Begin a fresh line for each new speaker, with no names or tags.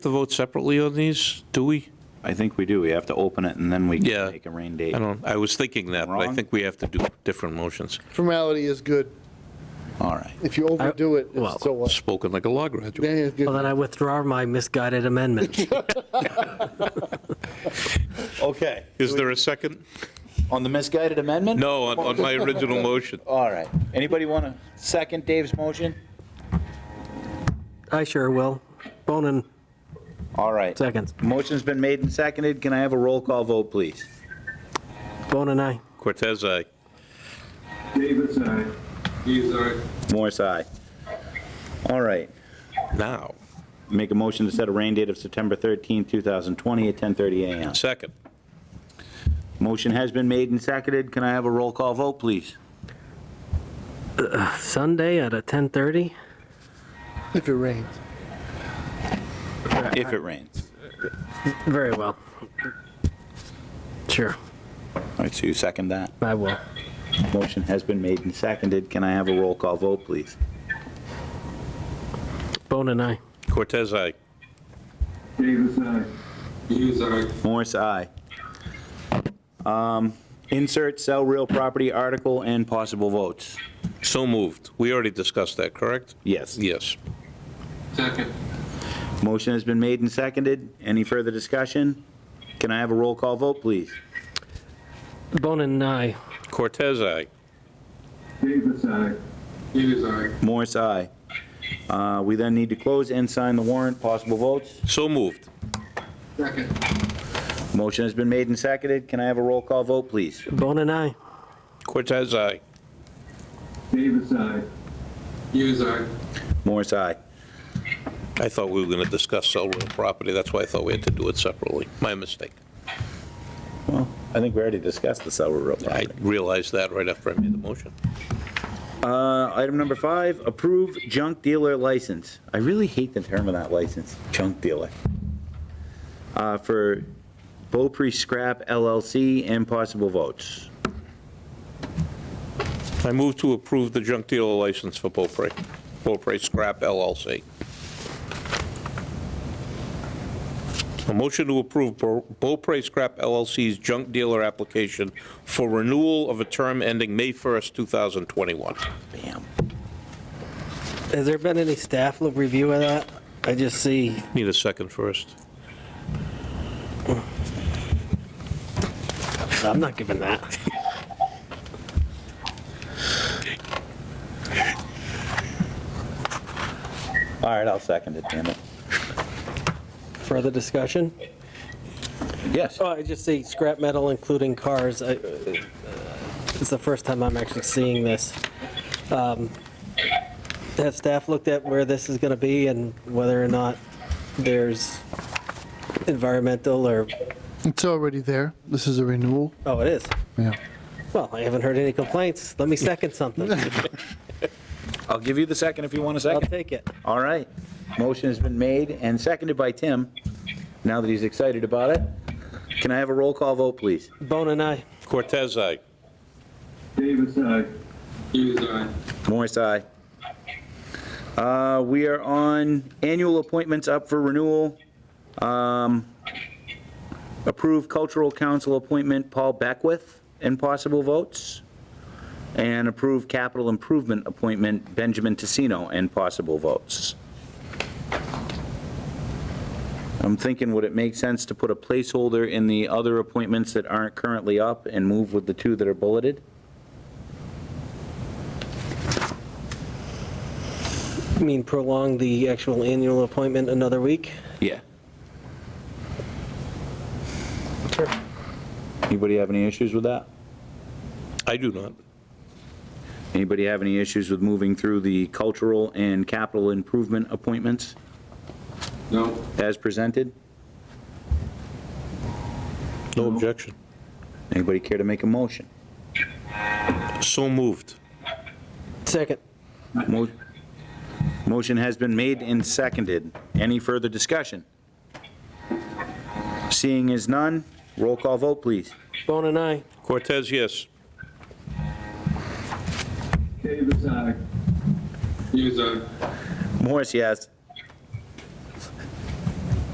to vote separately on these, do we?
I think we do. We have to open it and then we
Yeah.
can make a rain date.
I don't, I was thinking that, but I
Wrong?
think we have to do different motions.
Formality is good.
All right.
If you overdo it,
well,
it's so what?
Spoken like a law graduate.
Then it's good.
Well, then I withdraw my misguided amendment.
Okay.
Is there a second?
On the misguided amendment?
No, on, on my original motion.
All right. Anybody want to second Dave's motion?
I sure will. Bonin,
All right.
seconds.
Motion's been made and seconded. Can I have a roll call vote, please?
Bonin, aye.
Cortez, aye.
Davis, aye. Hughes, aye.
Morris, aye. All right.
Now,
Make a motion to set a rain date of September 13th, 2020 at 10:30 a.m.
second.
Motion has been made and seconded. Can I have a roll call vote, please?
Sunday at a 10:30?
If it rains.
If it rains.
Very well. Sure,
All right, so you second that.
I will.
Motion has been made and seconded. Can I have a roll call vote, please?
Bonin, aye.
Cortez, aye.
Davis, aye. Hughes, aye.
Morris, aye. Um, Insert sell real property article and possible votes.
So moved. We already discussed that, correct?
Yes.
Yes.
Second.
Motion has been made and seconded. Any further discussion? Can I have a roll call vote, please?
Bonin, aye.
Cortez, aye.
Davis, aye. Hughes, aye.
Morris, aye. Uh, We then need to close and sign the warrant, possible votes.
So moved.
Second.
Motion has been made and seconded. Can I have a roll call vote, please?
Bonin, aye.
Cortez, aye.
Davis, aye. Hughes, aye.
Morris, aye.
I thought we were going to discuss sell real property. That's why I thought we had to do it separately. My mistake.
Well, I think we already discussed the sell real
I
property.
realized that right after I made the motion.
Uh, Item number five, approve junk dealer license. I really hate the term of that license, junk dealer. Uh, For Beaupre Scrap LLC and possible votes.
I move to approve the junk dealer license for Beaupre, Beaupre Scrap LLC. A motion to approve Beau- Beaupre Scrap LLC's junk dealer application for renewal of a term ending May 1st, 2021.
Bam.
Has there been any staff review of that? I just see,
Need a second first.
I'm not giving that.
All right, I'll second it, damn it.
Further discussion?
Yes.
Oh, I just see scrap metal, including cars. I- uh, It's the first time I'm actually seeing this. Um, Has staff looked at where this is going to be and whether or not there's environmental or,
It's already there. This is a renewal.
oh, it is.
Yeah.
Well, I haven't heard any complaints. Let me second something.
I'll give you the second if you want a
I'll
second.
take it.
All right. Motion has been made and seconded by Tim. Now that he's excited about it, can I have a roll call vote, please?
Bone and I,
Cortez, aye.
Davis, aye. Hughes, aye.
Morris, aye. Uh, We are on annual appointments up for renewal. Um, Approve Cultural Council appointment Paul Beckwith and possible votes. And approve Capital Improvement appointment Benjamin Tessino and possible votes. I'm thinking, would it make sense to put a placeholder in the other appointments that aren't currently up and move with the two that are bulleted?
I mean, prolong the actual annual appointment another week.
Yeah. Anybody have any issues with that?
I do not.
Anybody have any issues with moving through the cultural and capital improvement appointments
No.
as presented?
No objection.
Anybody care to make a motion?
So moved.
Second.
Mo- Motion has been made and seconded. Any further discussion? Seeing is none, roll call vote, please.
Bone and I,
Cortez, yes.
Davis, aye. Hughes, aye.
Morris, yes.